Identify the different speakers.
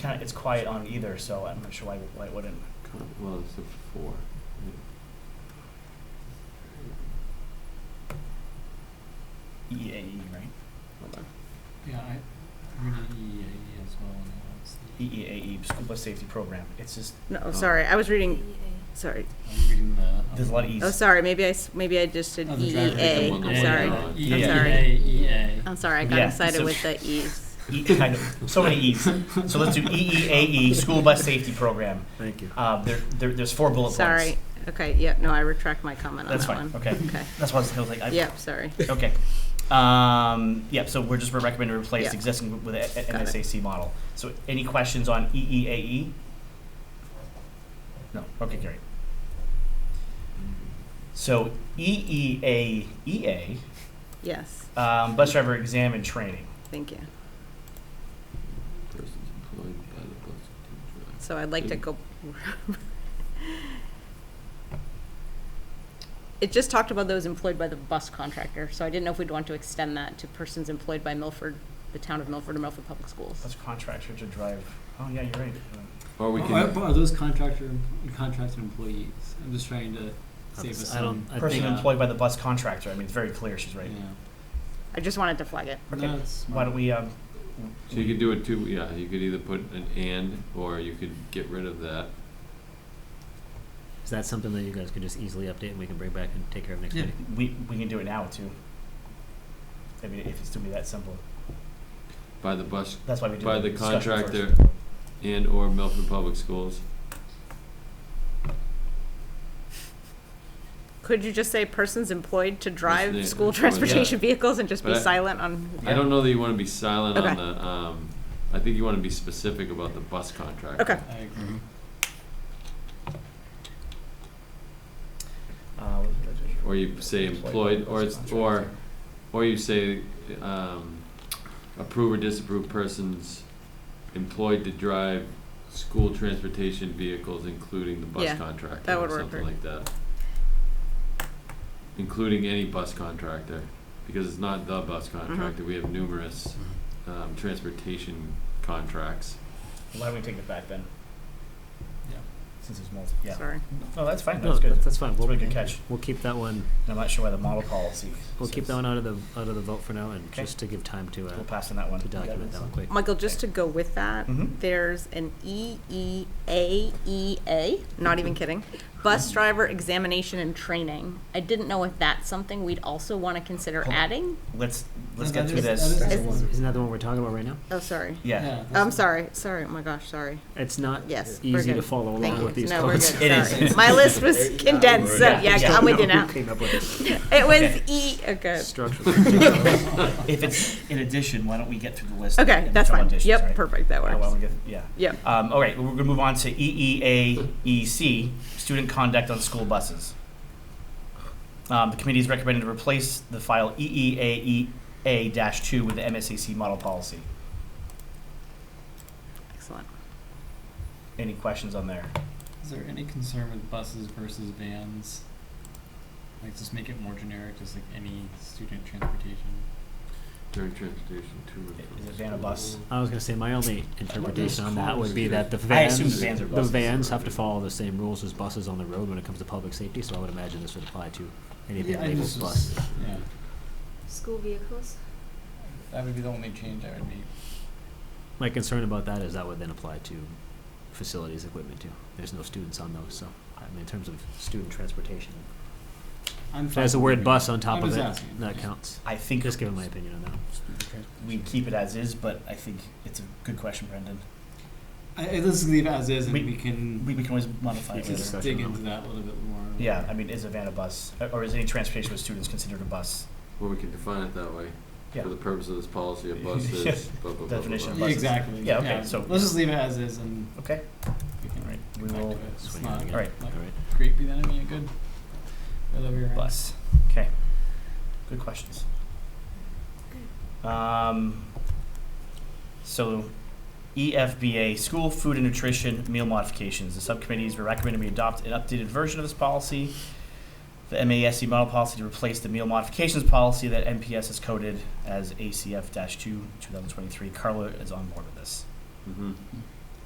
Speaker 1: kind of, it's quiet on either, so I'm not sure why, why it wouldn't.
Speaker 2: Con- Well, it's a four.
Speaker 1: EAE, E right?
Speaker 3: Yeah, I E read the EAE as well, and I was,
Speaker 1: E EEAE, School Bus Safety Program. It's just,
Speaker 2: Oh.
Speaker 4: No, sorry, I was reading, sorry.
Speaker 3: I'm reading the.
Speaker 1: There's a lot of
Speaker 3: um,
Speaker 1: E's.
Speaker 4: Oh, sorry, maybe I, s- maybe I just did
Speaker 3: Oh, the driver.
Speaker 4: EEA.
Speaker 2: One
Speaker 4: I'm
Speaker 1: E
Speaker 2: that
Speaker 3: Yeah,
Speaker 4: sorry.
Speaker 2: went
Speaker 3: yeah,
Speaker 2: on.
Speaker 3: yeah.
Speaker 1: I'm
Speaker 4: sorry.
Speaker 3: EAA.
Speaker 4: I'm sorry, I got
Speaker 1: E Yeah,
Speaker 4: excited
Speaker 1: so-
Speaker 4: with the E's.
Speaker 1: E, kind of, so many E's. So let's do E EEAE, School Bus Safety Program.
Speaker 2: Thank you.
Speaker 1: Uh, there, there, there's four bullet points.
Speaker 4: Sorry. Uh-huh. Okay, yeah, no, I retract my comment on
Speaker 1: That's
Speaker 4: that
Speaker 1: fine,
Speaker 4: one.
Speaker 1: okay.
Speaker 4: Okay.
Speaker 1: That's why I was I was like, I,
Speaker 4: Yep, sorry.
Speaker 1: Okay. Um, yeah, so we're just recommending to replace
Speaker 4: Yeah.
Speaker 1: existing with a- a-
Speaker 4: Got it.
Speaker 1: MSAC model. So any questions on E EEAE? No, okay, great. So E EEAEA,
Speaker 4: Yes,
Speaker 1: E um, bus driver exam and training.
Speaker 4: thank you.
Speaker 2: Persons employed by the bus to drive.
Speaker 4: So I'd like to
Speaker 2: Mm.
Speaker 4: go. It just talked about those employed by the bus contractor, so I didn't know if we'd want to extend that to persons employed by Milford, the town of Milford or Milford Public Schools.
Speaker 1: Bus contractor to drive, oh, yeah, you're right.
Speaker 2: Or we
Speaker 4: Oh,
Speaker 3: Are- Oh, Are
Speaker 2: can,
Speaker 3: are those contractor, contracted employees? I'm just trying to save us
Speaker 5: I
Speaker 3: some.
Speaker 5: don't, I
Speaker 1: Person
Speaker 5: think,
Speaker 3: uh,
Speaker 1: employed by the bus contractor, I mean, it's very clear, she's right.
Speaker 3: Yeah.
Speaker 4: I just wanted to flag it.
Speaker 1: Okay,
Speaker 3: No, it's
Speaker 1: Why don't
Speaker 3: smart.
Speaker 1: we, um,
Speaker 2: so you could do it two, yeah, you could either put an and, or you could get rid of that.
Speaker 5: is that something that you guys can just easily update and we can bring back and take care of next
Speaker 3: Yeah.
Speaker 5: meeting?
Speaker 1: we, we can do it now too. I mean, if it's to be that simple.
Speaker 2: By the bus
Speaker 1: That's why we do
Speaker 2: By the
Speaker 1: discussion first.
Speaker 2: contractor. and/or Milford Public Schools.
Speaker 4: Could you just say persons employed to drive
Speaker 2: Persons
Speaker 4: school
Speaker 2: employed,
Speaker 4: transportation vehicles and just be
Speaker 2: But I-
Speaker 4: silent on?
Speaker 2: I don't know that you wanna be silent on
Speaker 4: Okay.
Speaker 2: the, um, I think you wanna be specific about the bus contractor.
Speaker 4: Okay.
Speaker 3: I agree.
Speaker 1: Mm-hmm. Uh,
Speaker 2: Or you say employed, or it's, or, or you say, um, approve or disapprove persons employed to drive school transportation vehicles, including the bus
Speaker 4: Yeah,
Speaker 2: contractor,
Speaker 4: that
Speaker 2: or
Speaker 4: would work
Speaker 2: something
Speaker 4: for-
Speaker 2: like that. Including any bus contractor, because it's not the bus
Speaker 4: Mm-hmm.
Speaker 2: contractor, we have numerous,
Speaker 5: Mm-hmm.
Speaker 2: um, transportation contracts.
Speaker 1: Why don't we take it back then?
Speaker 3: Yeah.
Speaker 1: Since it's multi, yeah.
Speaker 4: Sorry.
Speaker 1: No, that's fine,
Speaker 5: No,
Speaker 1: that's good.
Speaker 5: that-
Speaker 1: That's
Speaker 5: That's fine,
Speaker 1: a
Speaker 5: we'll,
Speaker 1: really good catch.
Speaker 5: we'll keep that one,
Speaker 1: And I'm not sure why the model policy.
Speaker 5: we'll keep
Speaker 1: says-
Speaker 5: that one out of the, out of the vote for now and
Speaker 1: Okay.
Speaker 5: just to give time to, uh,
Speaker 1: We'll pass on that one.
Speaker 5: to document that one quick.
Speaker 4: Michael, just to go with that,
Speaker 1: Mhm.
Speaker 4: there's an E EEAEA, E not
Speaker 1: Mm-hmm.
Speaker 4: even kidding, bus driver examination and training. I didn't know if that's something we'd also want to consider
Speaker 1: Hold on.
Speaker 4: adding.
Speaker 1: Let's, let's get
Speaker 3: No, that
Speaker 1: through
Speaker 3: is-
Speaker 1: this.
Speaker 3: that is
Speaker 4: Is-
Speaker 3: the one.
Speaker 5: Isn't that the one we're talking about right now?
Speaker 4: Oh, sorry.
Speaker 1: Yeah.
Speaker 3: that's
Speaker 4: I'm
Speaker 3: the-
Speaker 4: sorry. Sorry. Oh my gosh. Sorry.
Speaker 5: It's not
Speaker 4: Yes, we're
Speaker 5: easy to
Speaker 4: good.
Speaker 5: follow
Speaker 4: Thank
Speaker 5: along
Speaker 4: you.
Speaker 5: with these
Speaker 4: no, we're good.
Speaker 5: comments.
Speaker 1: It is.
Speaker 4: Sorry. My list was condensed, so
Speaker 1: Yeah.
Speaker 4: yeah,
Speaker 1: Yeah.
Speaker 4: I'm with you
Speaker 5: Don't know
Speaker 4: now.
Speaker 5: who came up with
Speaker 4: It was
Speaker 1: Okay.
Speaker 4: E. Okay.
Speaker 5: it. Structure.
Speaker 1: If it's in addition, why don't we get through the list?
Speaker 4: Okay,
Speaker 1: and
Speaker 4: that's
Speaker 1: fill
Speaker 4: fine.
Speaker 1: additions,
Speaker 4: Yep.
Speaker 1: right?
Speaker 4: Perfect. That
Speaker 1: Uh, why
Speaker 4: works.
Speaker 1: don't we get- Yeah.
Speaker 4: Yep.
Speaker 1: Um, all right, we're gonna move on to E EEAEC, student conduct on school buses. Um, the committee is recommended to replace the file E EEAEA two with the MSAC model policy.
Speaker 4: Excellent.
Speaker 1: Any questions on there?
Speaker 3: Is there any concern with buses versus vans? Like, just make it more generic, just like any student transportation.
Speaker 2: During transportation to and from
Speaker 1: Is a van a bus?
Speaker 5: I was gonna say, my only interpretation on that would be that the
Speaker 1: I assume the
Speaker 5: vans,
Speaker 1: vans are
Speaker 5: the
Speaker 1: buses.
Speaker 5: vans have to follow the same rules as buses on the road when it comes to public safety, so I would imagine this would apply to anything
Speaker 3: Yeah, I
Speaker 5: labeled
Speaker 3: just
Speaker 5: bus.
Speaker 3: was- Yeah,
Speaker 6: School vehicles?
Speaker 3: that would be the only change I would make.
Speaker 5: My concern about that is that would then apply to facilities equipment too. There's no students on those, so, I mean, in terms of student transportation.
Speaker 3: I'm
Speaker 5: If there's the
Speaker 3: fine
Speaker 5: word
Speaker 3: with
Speaker 5: bus on top
Speaker 3: I'm
Speaker 5: of
Speaker 3: just
Speaker 5: it,
Speaker 3: asking.
Speaker 5: that counts.
Speaker 1: I think
Speaker 5: Just giving my opinion on that.
Speaker 1: we keep it as is, but I think it's a good question, Brendan.
Speaker 3: I, I- let's leave as is and
Speaker 1: We-
Speaker 3: we, can
Speaker 1: We, we can always modify
Speaker 3: we
Speaker 1: it
Speaker 3: can
Speaker 1: later.
Speaker 3: just dig into that a little bit more.
Speaker 1: Yeah, I mean, is a van a bus, Uh, Or- or is any transportation with students considered a bus?
Speaker 2: Well, we can define it that way.
Speaker 1: Yeah.
Speaker 2: For the purpose of this policy, a bus is blah, blah, blah, blah,
Speaker 1: Definition of
Speaker 2: blah.
Speaker 3: Yeah, exactly.
Speaker 1: Yeah, okay, so-
Speaker 3: let's just leave it as is and
Speaker 1: Okay,
Speaker 3: we can
Speaker 1: all right, we
Speaker 3: get back
Speaker 1: will,
Speaker 3: to it. It's
Speaker 5: Swing it
Speaker 3: not
Speaker 5: again.
Speaker 1: all right,
Speaker 3: like
Speaker 5: All right.
Speaker 3: great, but then I mean, good. Other way around.
Speaker 1: bus, okay. Good questions. Um, so E EFBA, School Food and Nutrition Meal Modifications. The subcommittees were recommended we adopt an updated version of this policy, the MASC model policy to replace the meal modifications policy that MPS has coded as ACF-2 2023. Carla is on board with this.
Speaker 2: Mhm.